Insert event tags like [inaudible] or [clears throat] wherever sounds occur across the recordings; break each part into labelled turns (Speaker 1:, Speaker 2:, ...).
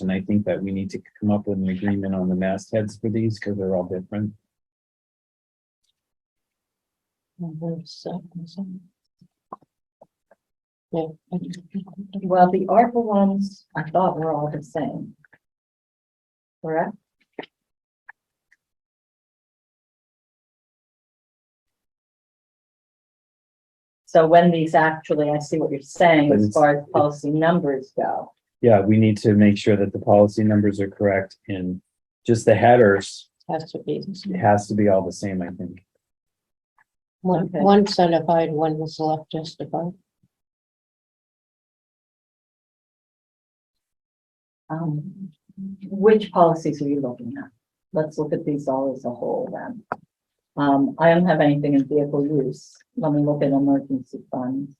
Speaker 1: And I think that we need to come up with an agreement on the mastheads for these because they're all different.
Speaker 2: Number seven, seven. Yeah.
Speaker 3: Well, the ARPA ones, I thought were all the same. Correct? So when these actually, I see what you're saying as far as policy numbers go.
Speaker 1: Yeah, we need to make sure that the policy numbers are correct and just the headers
Speaker 2: Has to be.
Speaker 1: has to be all the same, I think.
Speaker 2: One,
Speaker 3: Okay.
Speaker 2: one certified, one was left justified.
Speaker 3: Um, which policies are you looking at? Let's look at these all as a whole then. Um, I don't have anything in vehicle use. Let me look at emergency funds.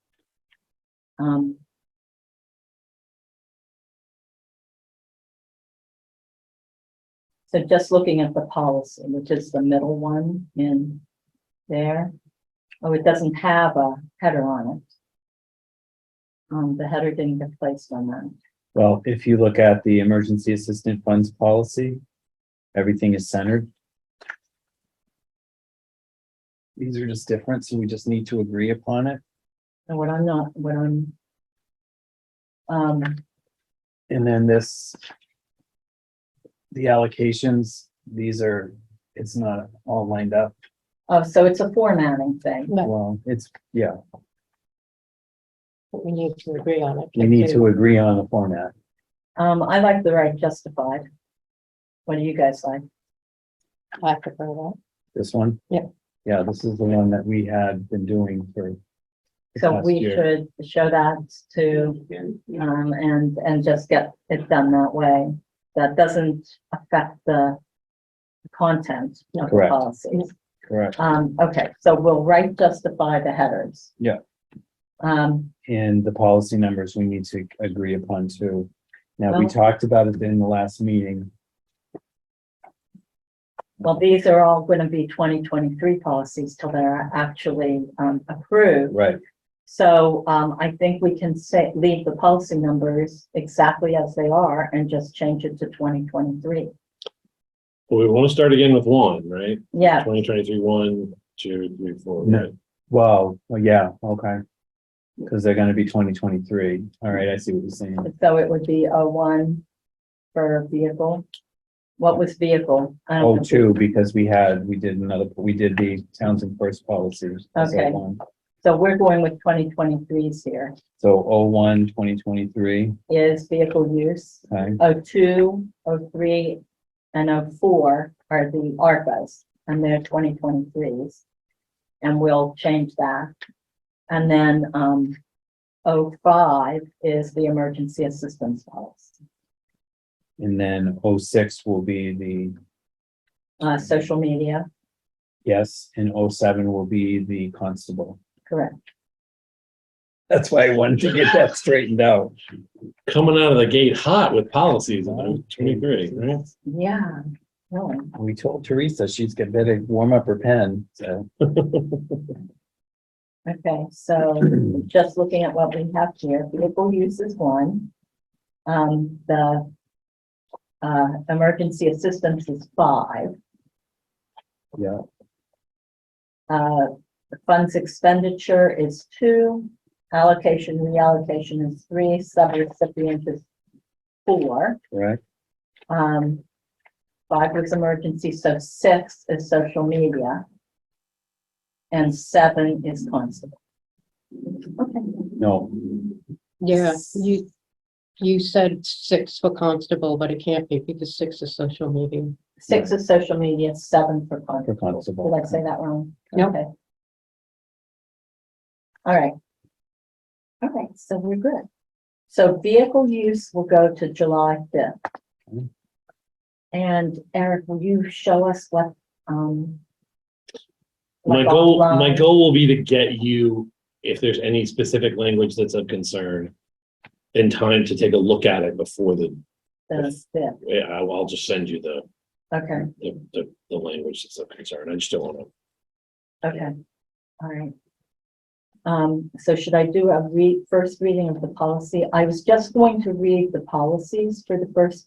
Speaker 3: Um. So just looking at the policy, which is the middle one in there. Oh, it doesn't have a header on it. Um, the header didn't get placed on that.
Speaker 1: Well, if you look at the emergency assistant funds policy, everything is centered. These are just different, so we just need to agree upon it.
Speaker 3: And what I'm not, what I'm. Um,
Speaker 1: And then this. The allocations, these are, it's not all lined up.
Speaker 3: oh, so it's a formatting thing.
Speaker 2: But
Speaker 1: Well, it's, yeah,
Speaker 2: we need to agree on it.
Speaker 1: we need to agree on the format.
Speaker 3: Um, I like the right justified. What do you guys like?
Speaker 2: I prefer that.
Speaker 1: This one?
Speaker 2: Yeah.
Speaker 1: Yeah, this is the one that we had been doing for. the
Speaker 3: So
Speaker 1: past
Speaker 3: we
Speaker 1: year.
Speaker 3: should show that to, um, and, and just get it done that way. That doesn't affect the content of the
Speaker 1: Correct.
Speaker 3: policies.
Speaker 1: Correct.
Speaker 3: Um, okay, so we'll right justify the headers.
Speaker 1: Yeah.
Speaker 3: Um,
Speaker 1: And the policy numbers we need to agree upon too. Now, we
Speaker 3: Well-
Speaker 1: talked about it in the last meeting.
Speaker 3: well, these are all gonna be twenty twenty-three policies till they're actually, um, approved.
Speaker 1: Right.
Speaker 3: So um, I think we can say, leave the policy numbers exactly as they are and just change it to twenty twenty-three.
Speaker 4: Well, we want to start again with one, right?
Speaker 3: Yeah,
Speaker 4: Twenty twenty-three, one, two, three, four.
Speaker 1: No.
Speaker 4: right?
Speaker 1: Wow, well, yeah, okay. Because they're gonna be twenty twenty-three. All right, I see what you're saying.
Speaker 3: so it would be a one for vehicle. What was vehicle? I
Speaker 1: Oh,
Speaker 3: don't know.
Speaker 1: two, because we had, we did another, we did the Townsend first policy. as
Speaker 3: Okay.
Speaker 1: one.
Speaker 3: So we're going with 2023s here.
Speaker 1: So oh one, twenty twenty-three,
Speaker 3: Is vehicle use.
Speaker 1: okay,
Speaker 3: O two, O three, and O four are the ARPA's, and they're twenty twenty-threes. And we'll change that. And then, um, O five is the emergency assistance policy,
Speaker 1: and then oh six will be the,
Speaker 3: uh, social media,
Speaker 1: yes, and oh seven will be the constable.
Speaker 3: correct.
Speaker 1: That's why I wanted to get that straightened out.
Speaker 4: Coming out of the gate hot with policies in twenty-three, right?
Speaker 3: Yeah, really.
Speaker 1: We told Teresa she's got better warm up her pen, so. [clears throat]
Speaker 3: Okay, so just looking at what we have here, vehicle use is one. Um, the uh, emergency assistance is five.
Speaker 1: Yeah.
Speaker 3: Uh, the funds expenditure is two, allocation, reallocation is three, subrecipient is four.
Speaker 1: Correct,
Speaker 3: Um, five was emergency, so six is social media. And seven is constable. Okay.
Speaker 1: no,
Speaker 2: Yeah, you, you said six for constable, but it can't be because six is social media.
Speaker 3: Six is social media, seven for
Speaker 1: for
Speaker 3: constable. Did
Speaker 1: constable.
Speaker 3: I say that wrong?
Speaker 2: No.
Speaker 3: Okay. All right. All right, so we're good. So vehicle use will go to July fifth.
Speaker 1: Okay.
Speaker 3: And Eric, will you show us what, um.
Speaker 4: My
Speaker 3: like
Speaker 4: goal, my
Speaker 3: offline-
Speaker 4: goal will be to get you, if there's any specific language that's of concern, in time to take a look at it before the,
Speaker 3: the fifth,
Speaker 4: yeah, I'll, I'll just send you the,
Speaker 3: okay,
Speaker 4: the, the, the language that's of concern. I just don't want to.
Speaker 3: okay, all right. Um, so should I do a read, first reading of the policy? I was just going to read the policies for the first